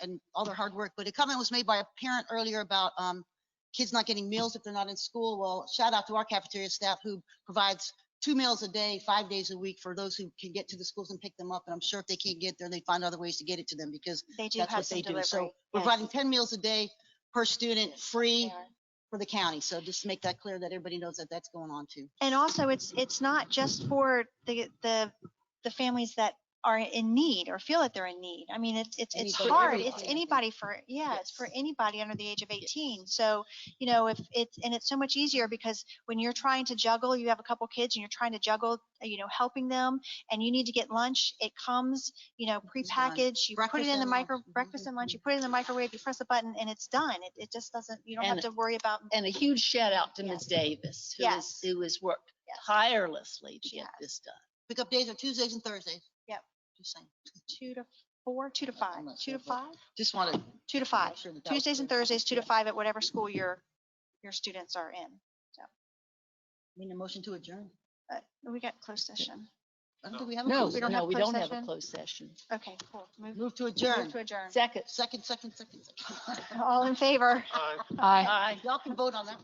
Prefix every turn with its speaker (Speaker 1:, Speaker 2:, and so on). Speaker 1: and all their hard work, but a comment was made by a parent earlier about um, kids not getting meals if they're not in school. Well, shout out to our cafeteria staff who provides two meals a day, five days a week for those who can get to the schools and pick them up. And I'm sure if they can't get there, they find other ways to get it to them because
Speaker 2: They do
Speaker 1: that's
Speaker 2: have
Speaker 1: what
Speaker 2: some
Speaker 1: they do.
Speaker 2: delivery.
Speaker 1: So we're
Speaker 2: yes,
Speaker 1: providing 10 meals a day per student,
Speaker 2: they
Speaker 1: free
Speaker 2: are.
Speaker 1: for the county. So just to make that clear that everybody knows that that's going on too.
Speaker 2: And also, it's, it's not just for the, the, the families that are in need or feel that they're in need. I mean, it's, it's, it's
Speaker 1: Anybody,
Speaker 2: hard.
Speaker 1: everybody, I
Speaker 2: It's
Speaker 1: think.
Speaker 2: anybody for, yeah, it's for
Speaker 1: Yes.
Speaker 2: anybody under the age of 18. So, you know, if it's, and it's so much easier because when you're trying to juggle, you have a couple kids and you're trying to juggle, uh, you know, helping them and you need to get lunch, it comes, you know,
Speaker 1: It's done.
Speaker 2: prepackaged, you put it
Speaker 1: Breakfast
Speaker 2: in the
Speaker 1: and lunch.
Speaker 2: micro,
Speaker 1: Mhm,
Speaker 2: breakfast and lunch,
Speaker 1: mhm.
Speaker 2: you put it in the microwave, you press a button and it's done. It, it just doesn't, you don't have
Speaker 3: And-
Speaker 2: to worry about,
Speaker 3: And a huge shout out to
Speaker 2: Yes.
Speaker 3: Ms. Davis, who
Speaker 2: Yes.
Speaker 3: has, who has worked
Speaker 2: Yes.
Speaker 3: tirelessly to
Speaker 2: She
Speaker 3: get
Speaker 2: has.
Speaker 3: this done.
Speaker 1: Pickup days are Tuesdays and Thursdays.
Speaker 2: Yep.
Speaker 1: Just saying.
Speaker 2: two to four, two to five,
Speaker 1: not
Speaker 2: two
Speaker 1: sure,
Speaker 2: to
Speaker 1: but-
Speaker 2: five?
Speaker 1: Just wanted.
Speaker 2: two to five, Tuesdays and Thursdays, two to five at whatever school your, your students are in.
Speaker 1: Need a motion to adjourn.
Speaker 2: Uh, We got closed session.
Speaker 1: I don't think we have. a
Speaker 3: No,
Speaker 1: closed
Speaker 2: we don't
Speaker 3: no,
Speaker 2: have
Speaker 3: we
Speaker 2: closed
Speaker 3: don't have a
Speaker 2: session?
Speaker 3: closed session.
Speaker 2: Okay, cool.
Speaker 1: session.
Speaker 2: Move
Speaker 1: Move to
Speaker 2: move
Speaker 1: adjourn.
Speaker 2: to adjourn.
Speaker 3: Second.
Speaker 1: Second, second, second, second.
Speaker 2: All in favor?
Speaker 4: Aye.
Speaker 3: Aye.
Speaker 1: Y'all can vote on that.